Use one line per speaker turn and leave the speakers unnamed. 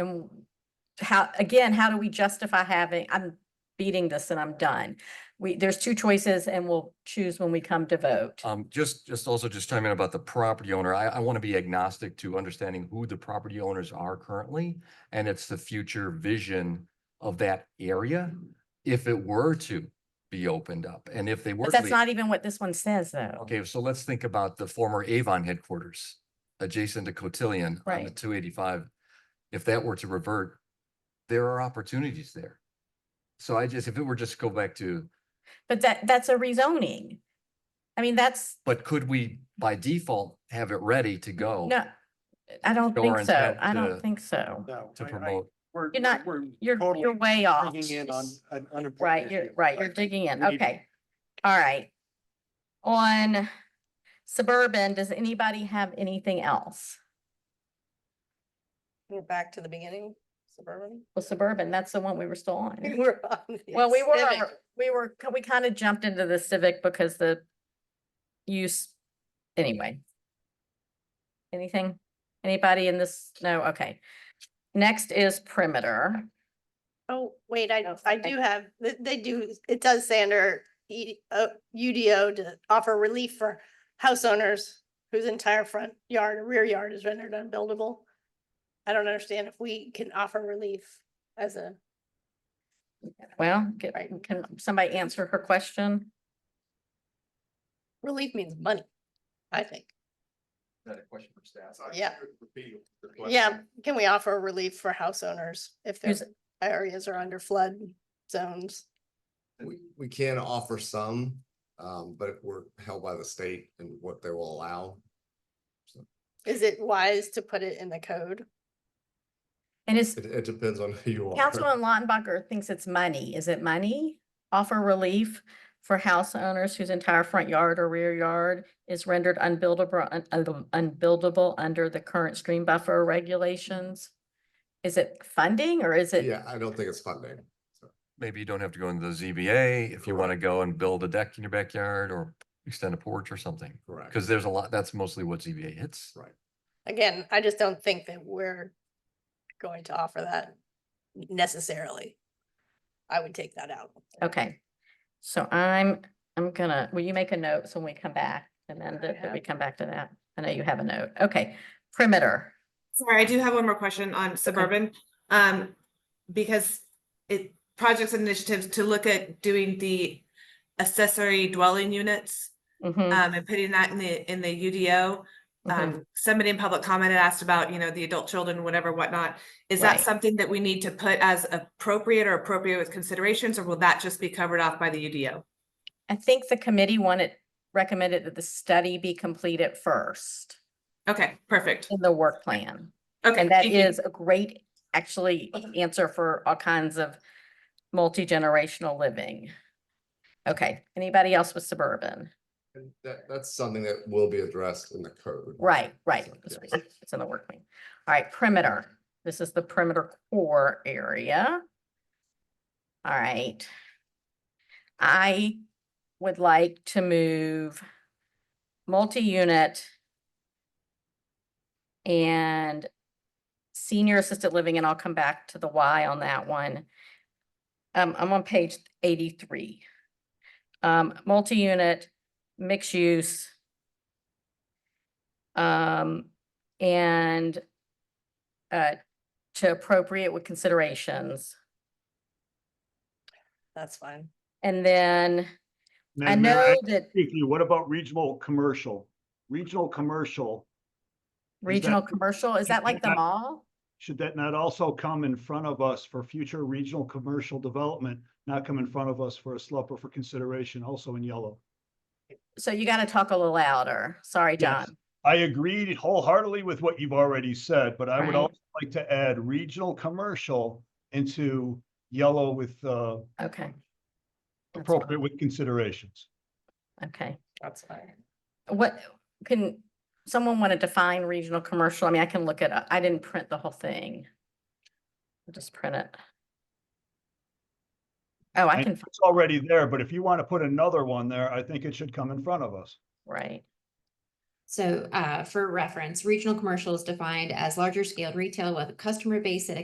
And how, again, how do we justify having, I'm beating this and I'm done. We, there's two choices and we'll choose when we come to vote.
Um, just, just also just chime in about the property owner. I, I want to be agnostic to understanding who the property owners are currently. And it's the future vision of that area if it were to be opened up and if they were.
But
to
that's
be-
not even what this one says, though.
Okay, so let's think about the former Avon headquarters adjacent to Cotillion on the
Right.
two eighty-five. If that were to revert, there are opportunities there. So I just, if it were just go back to,
But that, that's a rezoning. I mean, that's,
but could we by default have it ready to go?
no, I don't
Show our
think so.
intent
I
to-
don't think so.
No.
To
I- I-
promote.
We're.
You're not-
we're
You're,
totally
you're way off.
Digging in on an unimportant.
Right, you're,
issue.
right, you're digging in,
we need-
okay. All right. On suburban, does anybody have anything else?
We're back to the beginning, suburban.
Well, suburban, that's the one we were still on.
Mm-hmm.
We're on the
Well, we
civic.
were, we were, we kind of jumped into the civic because the use, anyway. Anything? Anybody in this? No, okay. Next is perimeter.
Oh, wait, I,
Oh,
I
okay.
do have, they, they do, it does say under E, uh, UDO to offer relief for house owners whose entire front yard or rear yard is rendered unbuildable. I don't understand if we can offer relief as a,
Well, get-
Right.
can somebody answer her question?
relief means money, I think.
Is that a question for staff?
Yeah. Yeah, can we offer relief for house owners if their
Who's-
areas are under flood zones?
We, we can offer some, um, but we're held by the state and what they will allow.
Is it wise to put it in the code?
And is
It, it depends on who you are.
Councilman Lautenbacher thinks it's money. Is it money? Offer relief for house owners whose entire front yard or rear yard is rendered unbuildable, un- un- unbuildable under the current stream buffer regulations? Is it funding or is it,
Yeah, I don't think it's funding.
maybe you don't have to go into the ZBA if you want to go and build a deck in your backyard or extend a porch or something.
Correct.
Because there's a lot, that's mostly what ZBA hits.
Right.
Again, I just don't think that we're going to offer that necessarily. I would take that out.
okay. So I'm, I'm gonna, will you make a note so when we come back? And then
I
that that we
have.
come back to that. I know you have a note. Okay, perimeter.
Sorry, I do have one more question on suburban. Um, because it, projects and initiatives to look at doing the accessory dwelling units,
Mhm,
um, and putting that in the, in the UDO.
mhm.
Um, somebody in public comment had asked about, you know, the adult children, whatever, whatnot. Is
Right.
that something that we need to put as appropriate or appropriate with considerations, or will that just be covered off by the UDO?
I think the committee wanted, recommended that the study be completed first.
Okay, perfect.
in the work plan.
Okay.
And that
thank you.
is a great, actually, answer for all kinds of multi-generational living. Okay, anybody else with suburban?
And That, that's something that will be addressed in the code.
Right, right.
So,
that's what it
yeah.
is, It's in the work plan. All right, perimeter. This is the perimeter core area. All right. I would like to move multi-unit and senior assisted living, and I'll come back to the why on that one. Um, I'm on page eighty-three. Um, multi-unit, mixed use. Um, and uh, to appropriate with considerations.
That's fine.
And then I
Madam Mayor,
know
I-
that
Speaking, what about regional commercial? Regional commercial,
regional commercial, is that like the
that-
mall?
should that not also come in front of us for future regional commercial development? Not come in front of us for a slump or for consideration also in yellow?
So you gotta talk a little louder. Sorry,
Yes.
John.
I agree wholeheartedly with what you've already said, but I would
Right.
also like to add regional commercial into yellow with uh
Okay. That's fine.
appropriate with considerations.
Okay.
That's fine.
What, can, someone want to define regional commercial? I mean, I can look it up. I didn't print the whole thing. I'll Just print it. Oh, I
I-
can, fi-
It's already there, but if you want to put another one there, I think it should come in front of us.
right.
So, uh, for reference, regional commercial is defined as larger scaled retail with a customer base that